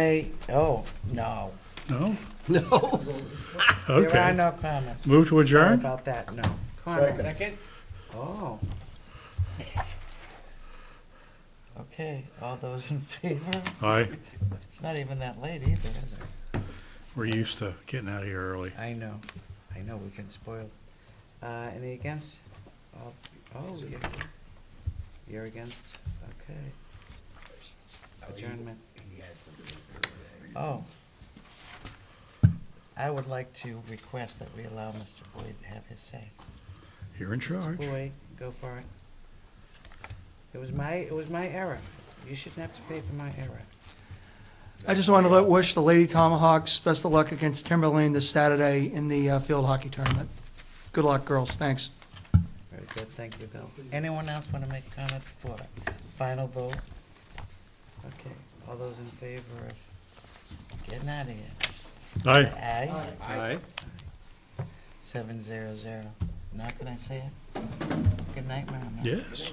Hey, oh, no. No? No. There are Okay. no comments. Move Sorry to adjourn? about that, no. Comments. Oh. Okay, all those in favor? Aye. It's not even that late either, is it? We're used to getting out of here early. I know, I know, we've been spoiled. Uh, any against? All- Oh, you're, you're against, okay. Adjournment. Oh. I would like to request that we allow Mr. Boyd to have his say. You're in Mr. charge. Boyd, go for it. It was my, it was my error. You shouldn't have to pay for my error. I just want to let wish the Lady Tomahawks best of luck against Timberlane this Saturday in the uh, field hockey tournament. Good luck, girls. Thanks. Very good, thank you, Bill. Anyone else want to make comment before the final vote? Okay, all those in favor of getting out of here? Aye. Aye, Aye. seven zero zero. Now can I say it? Good night, Mama. Yes.